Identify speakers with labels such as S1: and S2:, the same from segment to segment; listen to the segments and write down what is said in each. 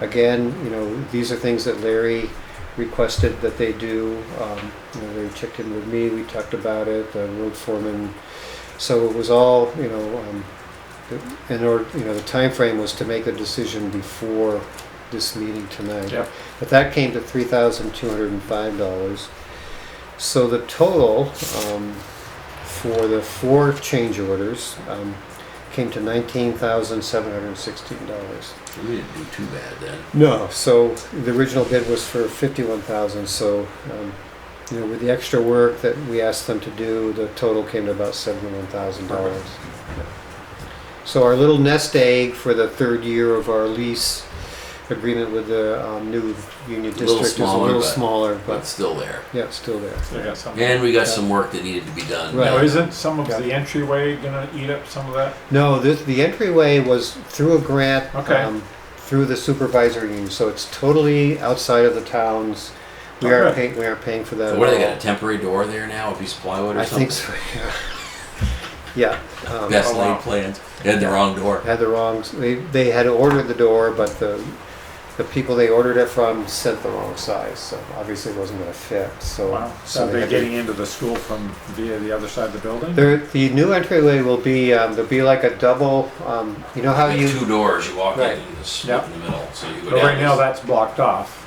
S1: Again, you know, these are things that Larry requested that they do. Um, you know, Larry checked in with me, we talked about it, the road foreman. So it was all, you know, um, the- in order, you know, the time frame was to make a decision before this meeting tonight.
S2: Yeah.
S1: But that came to three thousand two hundred and five dollars. So the total, um, for the four change orders, um, came to nineteen thousand seven hundred and sixteen dollars.
S3: We didn't do too bad then.
S1: No, so the original bid was for fifty-one thousand, so, um, you know, with the extra work that we asked them to do, the total came to about seventy-one thousand dollars. So our little nest egg for the third year of our lease agreement with the, um, new union
S3: A little
S1: district is a
S3: smaller,
S1: little
S3: but-
S1: smaller,
S3: But
S1: but,
S3: still there.
S1: yeah, it's still there.
S2: They got some-
S3: And we got some work that needed to be done.
S1: Right.
S2: Now, isn't some of
S1: Yeah.
S2: the entryway gonna eat up some of that?
S1: No, the, the entryway was through a grant.
S2: Okay.
S1: um, Through the supervisor union, so it's totally outside of the towns. We
S2: Oh,
S1: aren't
S2: good.
S1: paying, we aren't paying for that
S3: So
S1: at
S3: what, they
S1: all.
S3: got a temporary door there now, a piece of plywood or
S1: I
S3: something?
S1: think so, yeah. Yeah, um,
S3: Best
S2: Oh,
S3: laid
S2: wow.
S3: plans. They had the wrong door.
S1: had the wrong, they, they had ordered the door, but the, the people they ordered it from sent the wrong size, so obviously it wasn't gonna fit, so.
S2: Wow, so they're
S1: had to-
S2: getting into the school from via the other side of the building?
S1: There, the new entryway will be, um, there'll be like a double, um, you know how
S4: There's
S1: you,
S4: two doors, you walk in
S1: Right.
S4: and it's
S2: Yep.
S4: in the middle, so you go
S2: But
S4: down.
S2: right now,
S4: this-
S2: that's blocked off.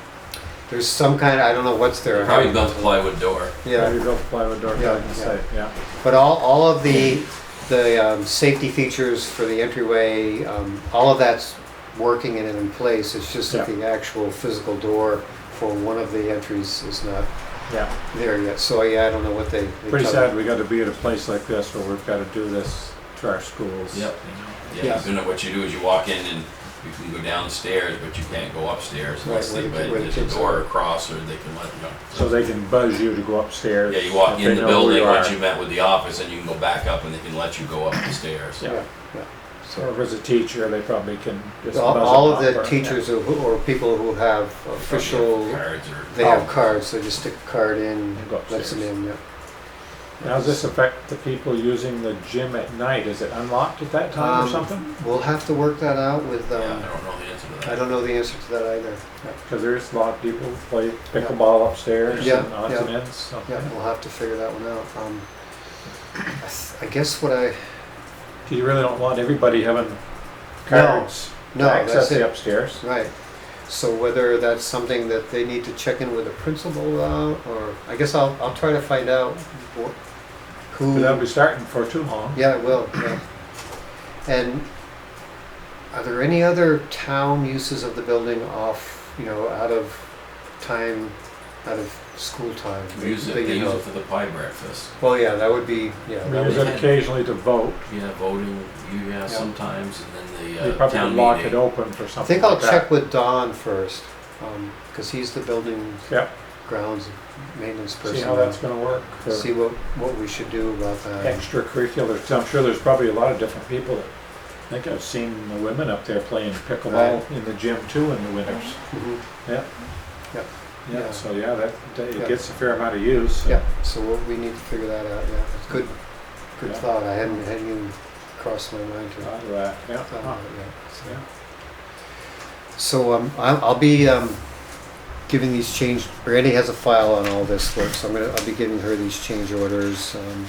S1: there's some kind, I don't know what's there.
S4: Probably built a plywood door.
S1: Yeah.
S2: Maybe built plywood door,
S1: Yeah,
S2: I can say, yeah.
S1: But all, all of the, the um, safety features for the entryway, um, all of that's working and in place. It's just that
S2: Yeah.
S1: the actual physical door for one of the entries is not
S2: Yeah,
S1: there yet. So yeah, I don't know what they. they
S2: pretty
S1: covered.
S2: sad we gotta be at a place like this where we've gotta do this to our schools.
S4: Yep.
S1: Yeah.
S4: Yeah, so now what you do is you walk in and you can go downstairs, but you can't go upstairs.
S1: Right,
S4: unless
S1: where
S4: they-
S1: the-
S4: but
S1: where the
S4: There's a
S1: kids
S4: door
S1: are.
S4: across or they can let, you know.
S2: So they can buzz you to go upstairs.
S4: Yeah, you walk
S2: if they
S4: in the
S2: know who
S4: building,
S2: you
S4: once
S2: are.
S4: you met with the office, and you can go back up and they can let you go up the stairs.
S2: Yeah.
S1: yeah.
S2: So if it's a teacher, they probably can just
S1: All,
S2: buzz
S1: all
S2: them
S1: of the
S2: up or-
S1: teachers who- who- or people who have official,
S4: Cards or-
S1: they have
S2: Oh.
S1: cards, so just stick a card in,
S2: And go
S1: lets them
S2: upstairs.
S1: in, yeah.
S2: Now, does this affect the people using the gym at night? Is it unlocked at that time
S1: Um,
S2: or something?
S1: We'll have to work that out with,
S4: Yeah, I
S1: um,
S4: don't know the answer to
S1: I
S4: that.
S1: don't know the answer to that either.
S2: Because there's a lot of people who play pickleball upstairs
S1: Yeah,
S2: and odds
S1: yeah.
S2: and ends. so-
S1: Yeah, we'll have to figure that one out. Um, I s- I guess what I,
S2: 'Cause you really don't want everybody having cards
S1: no,
S2: to access
S1: that's it.
S2: the upstairs.
S1: right. So whether that's something that they need to check in with the principal about, or, I guess I'll, I'll try to find out wh- who.
S2: But that'll be starting for too long.
S1: Yeah, it will, yeah. And are there any other town uses of the building off, you know, out of time, out of school time?
S4: We use it,
S1: that you
S4: they use
S1: know
S4: it
S1: of?
S4: for the pie breakfast.
S1: Well, yeah, that would be, yeah.
S2: We
S1: that
S2: use
S1: would-
S2: it occasionally to vote.
S4: Yeah, voting, you, yeah,
S1: Yeah.
S4: sometimes, and then
S2: They
S4: the uh,
S2: probably
S4: town
S2: lock it
S4: meeting.
S2: open for
S1: I
S2: something
S1: think I'll
S2: like that.
S1: check with Don first, because he's the building
S2: Yeah,
S1: grounds maintenance person.
S2: see how that's gonna work for
S1: See uh, what, what we should do about that.
S2: extracurriculars. I'm sure there's probably a lot of different people that, I think I've seen the women up there playing pickleball in the gym too in the winters.
S1: Mhm.
S2: Yeah.
S1: Yep. Yeah.
S2: Yeah, so yeah, that, that-
S1: Yeah.
S2: it gets a fair amount of use. so-
S1: Yeah, so we'll- we need to figure that out, yeah. It's Good, good
S2: Yeah.
S1: thought, I hadn't, hadn't even crossed my mind
S2: A
S1: to
S2: lot of that, yeah.
S1: thought about it yet. so.
S2: Yeah.
S1: So um, I'll, I'll be um, giving these change. Brandy has a file on all this work, so I'm gonna I'll be giving her these change orders, um,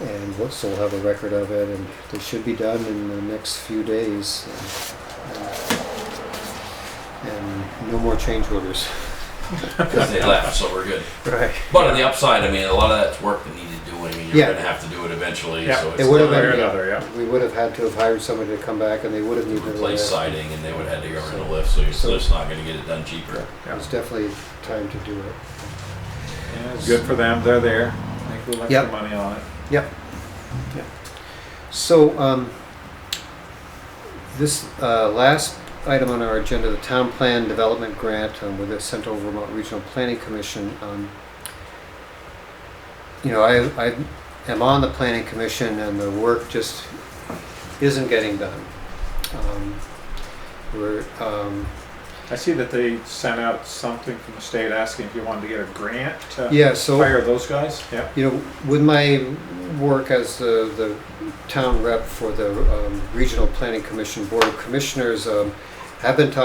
S1: and what so we'll have a record of it, and they should be done in the next few days. And, and no more change orders.
S4: Because they left, so we're good.
S1: Right.
S4: But on the upside, I mean, a lot of that's work that needed doing. I mean, you're
S1: Yeah.
S4: gonna have to do it eventually,
S2: Yeah.
S4: so
S1: It
S4: it's
S1: would have
S4: not
S2: One way or
S1: been.
S2: another, yeah.
S1: We would have had to have hired somebody to come back, and they would have needed. a
S4: replace
S1: lift.
S4: siding and they would have had to go in the lift, so you're
S1: So-
S4: just not gonna get it done cheaper.
S2: Yeah.
S1: It's definitely time to do it.
S2: Yeah, it's good for them, they're there. I think we'll let
S1: Yep.
S2: the money on it.
S1: Yep. Yep. So, um, this, uh, last item on our agenda, the town plan development grant um, with the Central Vermont Regional Planning Commission. um, You know, I, I am on the planning commission and the work just isn't getting done. Um, We're, um,
S2: I see that they sent out something from the state asking if you wanted to get a grant to
S1: yeah, so.
S2: hire those guys. Yeah.
S1: you know, with my work as the, the town rep for the um, Regional Planning Commission Board of Commissioners, um, have been talking